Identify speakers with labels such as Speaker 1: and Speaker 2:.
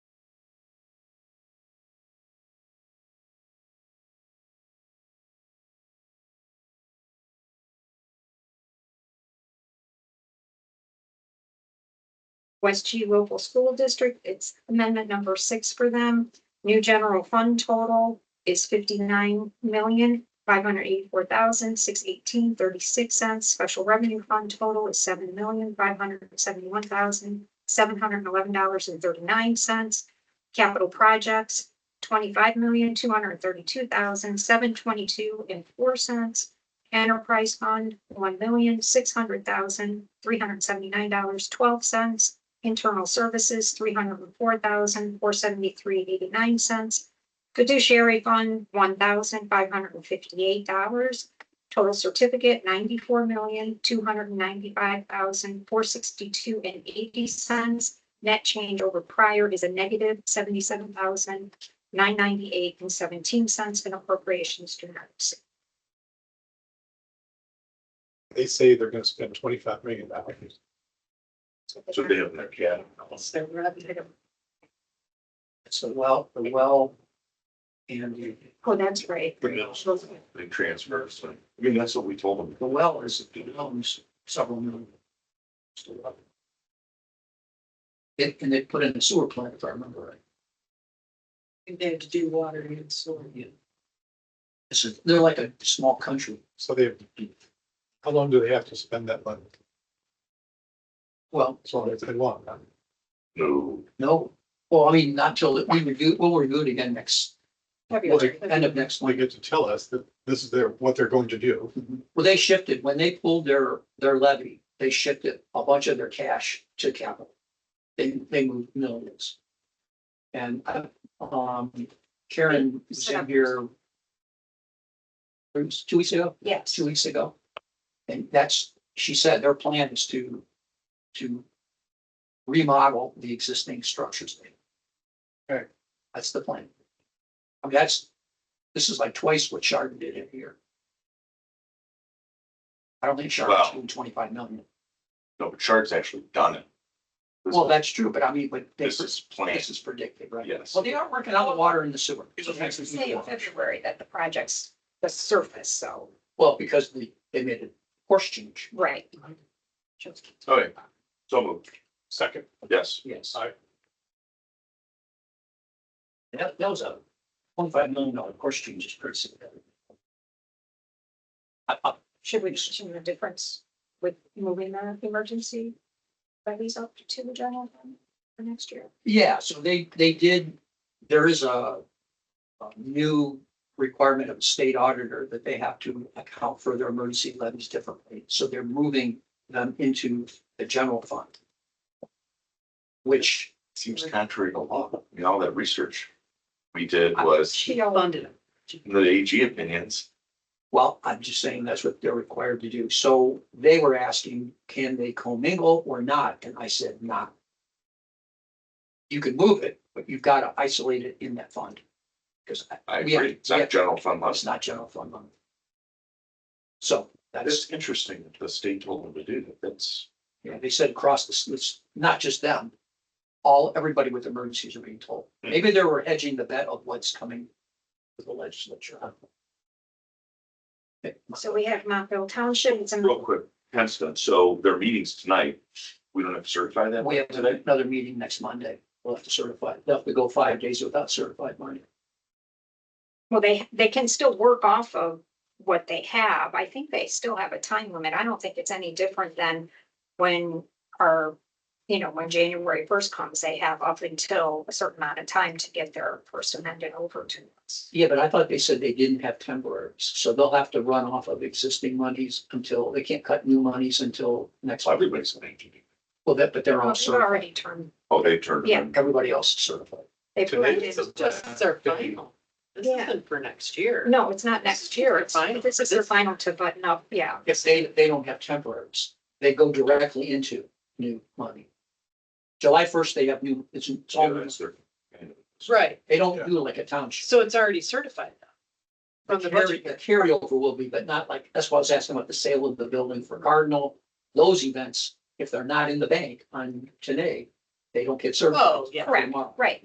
Speaker 1: West G Local School District, it's amendment number six for them. New general fund total is fifty-nine million, five hundred eighty-four thousand, six eighteen, thirty-six cents. Special revenue fund total is seven million, five hundred seventy-one thousand, seven hundred eleven dollars and thirty-nine cents. Capital projects, twenty-five million, two hundred thirty-two thousand, seven twenty-two and four cents. Enterprise fund, one million, six hundred thousand, three hundred seventy-nine dollars, twelve cents. Internal services, three hundred and four thousand, four seventy-three, eighty-nine cents. Fiduciary fund, one thousand, five hundred and fifty-eight dollars. Total certificate, ninety-four million, two hundred and ninety-five thousand, four sixty-two and eighty cents. Net change over prior is a negative seventy-seven thousand, nine ninety-eight and seventeen cents and appropriations to notes.
Speaker 2: They say they're gonna spend twenty-five million dollars.
Speaker 3: So they have that, yeah.
Speaker 4: So well, the well. And the-
Speaker 1: Oh, that's right.
Speaker 3: The middle school, they transfer, so, I mean, that's what we told them.
Speaker 4: the well is, it owns several million. It, and they put in a sewer plant, if I remember right.
Speaker 5: They had to do water and sewer.
Speaker 4: It's a, they're like a small country.
Speaker 2: So they, how long do they have to spend that money?
Speaker 4: Well,
Speaker 2: As long as they want.
Speaker 3: No,
Speaker 4: no, well, I mean, not till, we review, we'll review it again next, end of next
Speaker 2: They
Speaker 4: week.
Speaker 2: get to tell us that this is their, what they're going to do.
Speaker 4: Well, they shifted, when they pulled their, their levy, they shifted a bunch of their cash to capital. They, they moved millions. And, um, Karen was in here. it was two weeks ago,
Speaker 1: Yes,
Speaker 4: two weeks ago. And that's, she said their plan is to, to remodel the existing structures.
Speaker 2: Right.
Speaker 4: That's the plan. I mean, that's, this is like twice what Chardon did in here. I don't think Chardon's
Speaker 3: Wow.
Speaker 4: doing twenty-five million.
Speaker 3: no, but Shark's actually done it. This-
Speaker 4: Well, that's true, but I mean, but this
Speaker 3: This
Speaker 4: is,
Speaker 3: is planned.
Speaker 4: this is predicted, right?
Speaker 3: Yes.
Speaker 4: Well, they are working on the water and the sewer.
Speaker 1: say in February that the project's the surface, so,
Speaker 4: Well, because they, they made a course change.
Speaker 1: right.
Speaker 3: Okay, so moved,
Speaker 2: Second.
Speaker 3: yes,
Speaker 4: Yes.
Speaker 2: Aye.
Speaker 4: That, that was a twenty-five million dollar course change is pretty significant. I, I,
Speaker 1: Should we mention the difference with moving the emergency levies up to the general fund for next year?
Speaker 4: yeah, so they, they did, there is a, a new requirement of the state auditor that they have to account for their emergency levies differently. So they're moving them into the general fund. Which,
Speaker 3: seems contrary to law, I mean, all that research we did was
Speaker 5: She funded it.
Speaker 3: the AG opinions.
Speaker 4: well, I'm just saying that's what they're required to do. So they were asking, can they commingle or not? And I said, not. You can move it, but you've got to isolate it in that fund. Because
Speaker 3: I
Speaker 4: We have-
Speaker 3: agree, it's
Speaker 4: we have-
Speaker 3: not general fund
Speaker 4: it's
Speaker 3: money.
Speaker 4: not general fund money. So that is,
Speaker 3: That's interesting that the state told them to do that, that's,
Speaker 4: yeah, they said across the, s- it's not just them. All, everybody with emergencies are being told. Maybe they were hedging the bet of what's coming with the legislature. I don't know. Okay,
Speaker 1: So we have Montville Township, it's in
Speaker 3: real quick, Hempstead, so their meetings tonight, we don't have to certify that
Speaker 4: We have
Speaker 3: today?
Speaker 4: another meeting next Monday. We'll have to certify, they'll have to go five days without certified money.
Speaker 1: Well, they, they can still work off of what they have. I think they still have a time limit. I don't think it's any different than when our, you know, when January first comes, they have up until a certain amount of time to get their first amendment over to us.
Speaker 4: Yeah, but I thought they said they didn't have temporaries, so they'll have to run off of existing monies until, they can't cut new monies until next.
Speaker 3: So Everybody's an AG.
Speaker 4: Well, that, but they're
Speaker 1: Well,
Speaker 4: all
Speaker 1: They've
Speaker 4: certified.
Speaker 1: already turned,
Speaker 3: Oh, they turned. it
Speaker 1: Yeah.
Speaker 3: in.
Speaker 4: Everybody else is certified.
Speaker 1: they've
Speaker 2: Today?
Speaker 1: already,
Speaker 5: This is just it's our final. This
Speaker 1: Yeah.
Speaker 5: isn't for next year.
Speaker 1: no, it's not next year. It's,
Speaker 5: Final.
Speaker 1: this is their final to button up, yeah.
Speaker 4: If they, they don't have temporaries, they go directly into new money. July first, they have new, it's, it's all,
Speaker 3: Yeah,
Speaker 4: new.
Speaker 3: that's their-
Speaker 5: Right,
Speaker 4: they don't do like a township.
Speaker 5: so it's already certified now. From the
Speaker 4: Carry- The
Speaker 5: budget.
Speaker 4: carryover will be, but not like, that's why I was asking about the sale of the building for Cardinal. Those events, if they're not in the bank on today, they don't get certified.
Speaker 5: Oh, yeah.
Speaker 4: Tomorrow.
Speaker 1: Right,